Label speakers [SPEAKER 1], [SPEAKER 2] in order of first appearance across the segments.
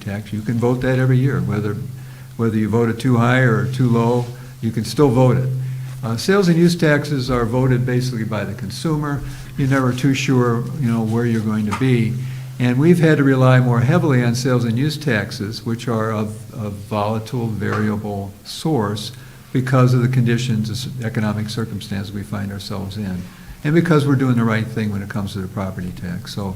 [SPEAKER 1] tax. You can vote that every year, whether, whether you vote it too high or too low, you can still vote it. Uh, Sales and use taxes are voted basically by the consumer. You're never too sure, you know, where you're going to be. And we've had to rely more heavily on sales and use taxes, which are of, of volatile, variable source because of the conditions, economic circumstances we find ourselves in, and because we're doing the right thing when it comes to the property tax. So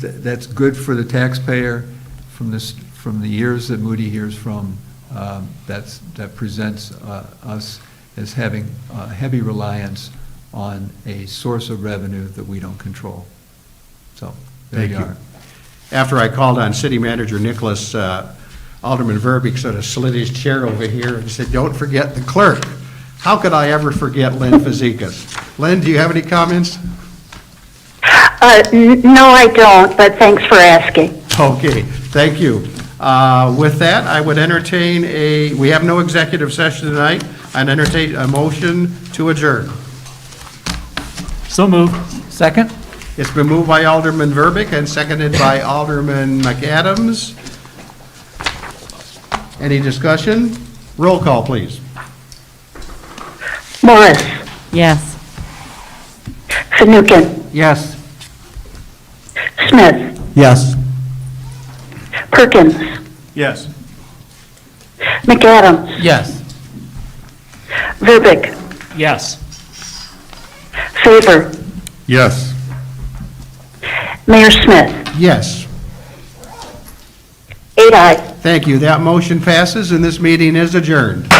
[SPEAKER 1] th- that's good for the taxpayer from this, from the years that Moody hears from, um, that's, that presents uh, us as having uh, heavy reliance on a source of revenue that we don't control. So, there
[SPEAKER 2] Thank
[SPEAKER 1] you
[SPEAKER 2] you.
[SPEAKER 1] are.
[SPEAKER 2] After I called on City Manager Nicholas, uh, Alderman Verbeek sort of slid his chair over here and said, "Don't forget the clerk." How could I ever forget Lynn Fazekas? Lynn, do you have any comments?
[SPEAKER 3] Uh, n- No, I don't, but thanks for asking.
[SPEAKER 2] Okay, thank you. Uh, With that, I would entertain a, we have no executive session tonight. I'd entertain a motion to adjourn.
[SPEAKER 4] So moved. Second?
[SPEAKER 2] It's been moved by Alderman Verbeek and seconded by Alderman McAdams. Any discussion? Roll call, please.
[SPEAKER 3] Morris,
[SPEAKER 5] Yes.
[SPEAKER 3] Fanouken,
[SPEAKER 2] Yes.
[SPEAKER 3] Smith,
[SPEAKER 4] Yes.
[SPEAKER 3] Perkins,
[SPEAKER 4] Yes.
[SPEAKER 3] McAdams,
[SPEAKER 4] Yes.
[SPEAKER 3] Verbic,
[SPEAKER 4] Yes.
[SPEAKER 3] Favor,
[SPEAKER 2] Yes.
[SPEAKER 3] Mayor Smith.
[SPEAKER 2] Yes.
[SPEAKER 3] Eight ayes.
[SPEAKER 2] Thank you. That motion passes, and this meeting is adjourned.